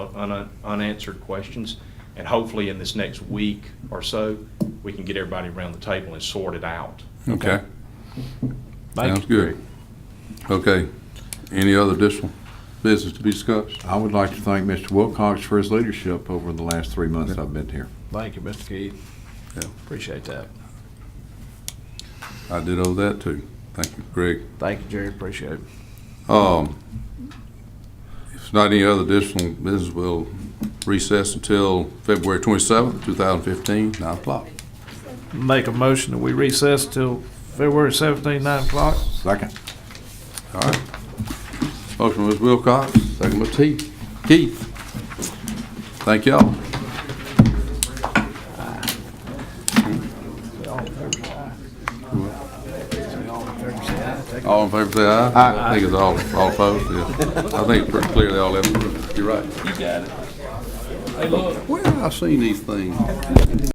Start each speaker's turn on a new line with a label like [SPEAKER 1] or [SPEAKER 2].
[SPEAKER 1] un- unanswered questions. And hopefully in this next week or so, we can get everybody around the table and sort it out.
[SPEAKER 2] Okay,
[SPEAKER 3] Thank
[SPEAKER 2] sounds
[SPEAKER 3] you,
[SPEAKER 2] good. Okay, any other additional business to be discussed?
[SPEAKER 4] I would like to thank Mr. Wilcox for his leadership over the last three months I've been here.
[SPEAKER 3] Thank you, Mr. Keith.
[SPEAKER 2] Yeah.
[SPEAKER 3] Appreciate that.
[SPEAKER 2] I did owe that too. Thank you, Greg.
[SPEAKER 3] Thank you, Jerry. Appreciate it.
[SPEAKER 2] Um, if not any other additional business, we'll recess until February twenty-seventh, two thousand fifteen, nine o'clock.
[SPEAKER 3] Make a motion that we recess till February 17, 9 o'clock.
[SPEAKER 4] Second.
[SPEAKER 2] All right. Motion was Wilcox, second was Teeth. Keith. Thank y'all. All in favor, say aye. I think it's all, all opposed, yeah. I think it's pretty clearly all in. You're right. You got it. Where have I seen these things?